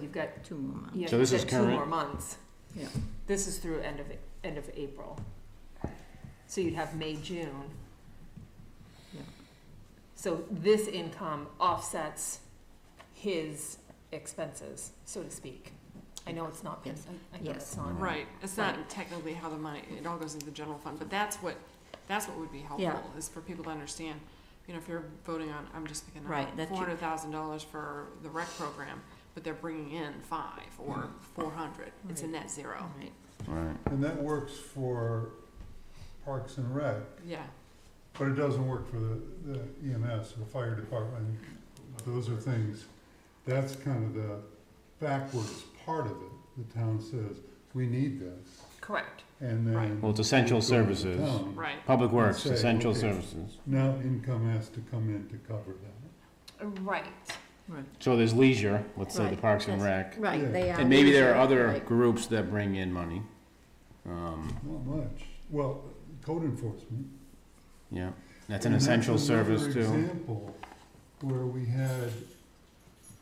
got, Two more months. yeah, So you've this is got two more current? months. Yeah. This is through end of, end of April. So you'd have May, June. Yeah. So this income offsets his expenses, so to speak. I know it's not, I Yes. I know it's Yes. not. Right, it's not technically how the money, it all goes into the general fund, but that's what, that's what would be helpful, Yeah. is for people to understand. You know, if you're voting on, I'm just picking Right, on that you- four hundred thousand dollars for the rec program, but they're bringing in five or four hundred, it's a Right. net zero, Right. Right. And that works for Parks and Rec, Mm-hmm. yeah. but it doesn't work for the the EMS or fire department. Those are things, that's kind of the backwards part of it. The town says, we need this, Correct. and Right. then. Well, it's essential we go to the services. town. Right, Public Works, Say, essential okay. services. Now income has to come in to cover that. Right. Right. So there's leisure, let's say the Right, Parks and yes. Rec. Yeah. Right, they are. And maybe there are leisure, other right. groups that bring in money. Um, Not much. Well, code enforcement. yeah, that's an And essential another service too. Example where we had,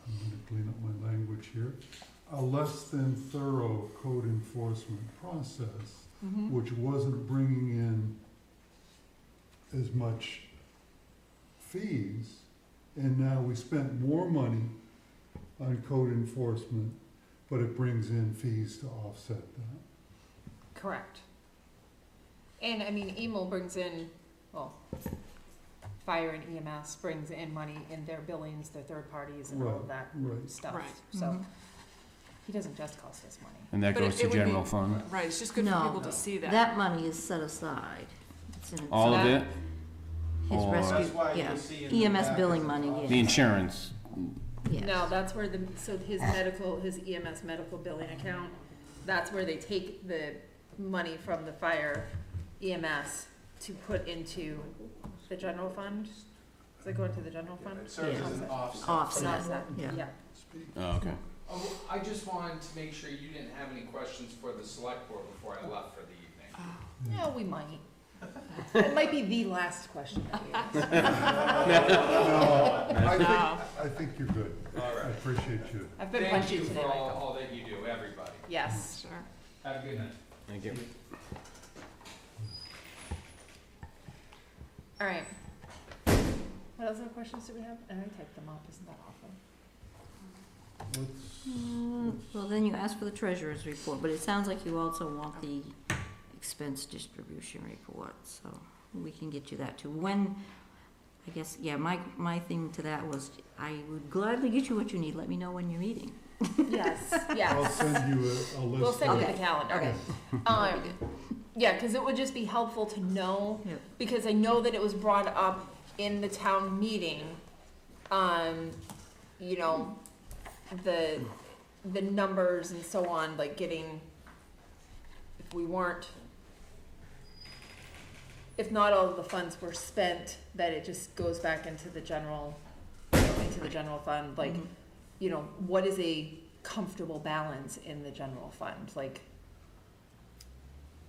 I'm gonna clean up my language here, a less than thorough code enforcement process, Mhm. which wasn't bringing in as much fees, and now we spent more money on code enforcement, but it brings in fees to offset that. Correct. And I mean, Emil brings in, well, fire and EMS brings in money in their billings, their third parties and all of that Right. stuff. Right. So Mhm. he doesn't just cost us money. And that But it- goes to it would be- general fund. right, it's just good for No. people to see that, That money is set aside. It's in All of it, that- His or- rescue, That's why you yeah. see in the EMS back billing of money, the- yeah. the insurance, yes. No, that's where the, so his medical, his EMS medical billing account, that's where they take the money from the fire EMS to put into the general fund? Does it go into the general fund? It serves as an Yeah. offset. An Offset, offset, yeah. yeah. oh, okay. Oh, I just wanted to make sure you didn't have any questions for the select board before I left for the evening. No, we might. It might be the last question that we ask. No, I think, No. I think you're good. All I right. appreciate you. I've been Thank punchy you today, for all, Michael. all that you do, everybody. Yes. sure. Have a good night. Thank you. All right. What other questions do we have? I already typed them up, isn't that awful? Mm, Well, then you ask for the treasurer's report, but it sounds like you also want the expense distribution report, so we can get you that too. When, I guess, yeah, my, my thing to that was, I would gladly get you what you need, let me know when you're meeting. Yes, I'll yes. send you a, a list. We'll send you of- the calendar. Okay. Um, yeah, because it would just be helpful to know, Yep. because I know that it was brought up in the town meeting. Um, you know, the, the numbers and so on, like getting, if we weren't, if not all of the funds were spent, that it just goes back into the general, into the general fund, like, Mhm. you know, what is a comfortable balance in the general fund? Like,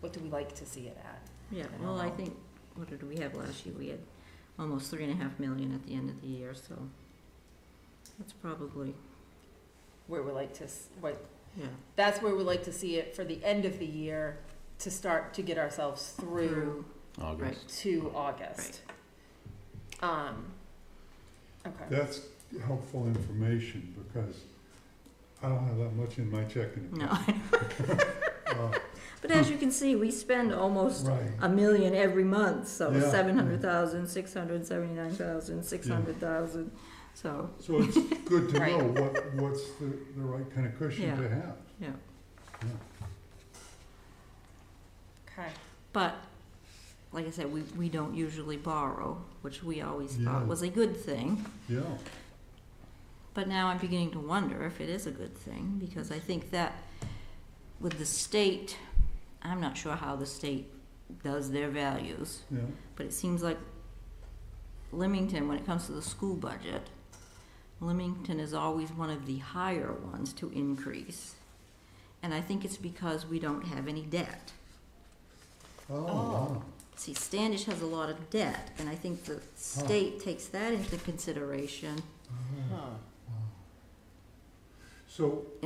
what do we like to see it at? Yeah, don't well, I know. think, what did we have last year? We had almost three and a half million at the end of the year, so that's probably, Where we like to, s- what, yeah. that's where we like to see it for the end of the year to start to get ourselves through August. to August. Um, okay, That's helpful information because I don't have that much in my checking account. No, Uh, but as you can see, we spend almost Right, a million every month, so Yeah. seven hundred thousand, six hundred seventy-nine thousand, six hundred thousand, so, so it's good to know Right. what, what's the, the right kind of cushion to have. yeah. okay, But, like I said, we, we don't usually borrow, which we always Yeah. thought was a good thing. Yeah, But now I'm beginning to wonder if it is a good thing, because I think that with the state, I'm not sure how the state does their values, yeah, but it seems like Leamington, when it comes to the school budget, Leamington is always one of the higher ones to increase. And I think it's because we don't have any debt. oh, wow, See, Standish has a lot of debt, and I think the state takes that into consideration so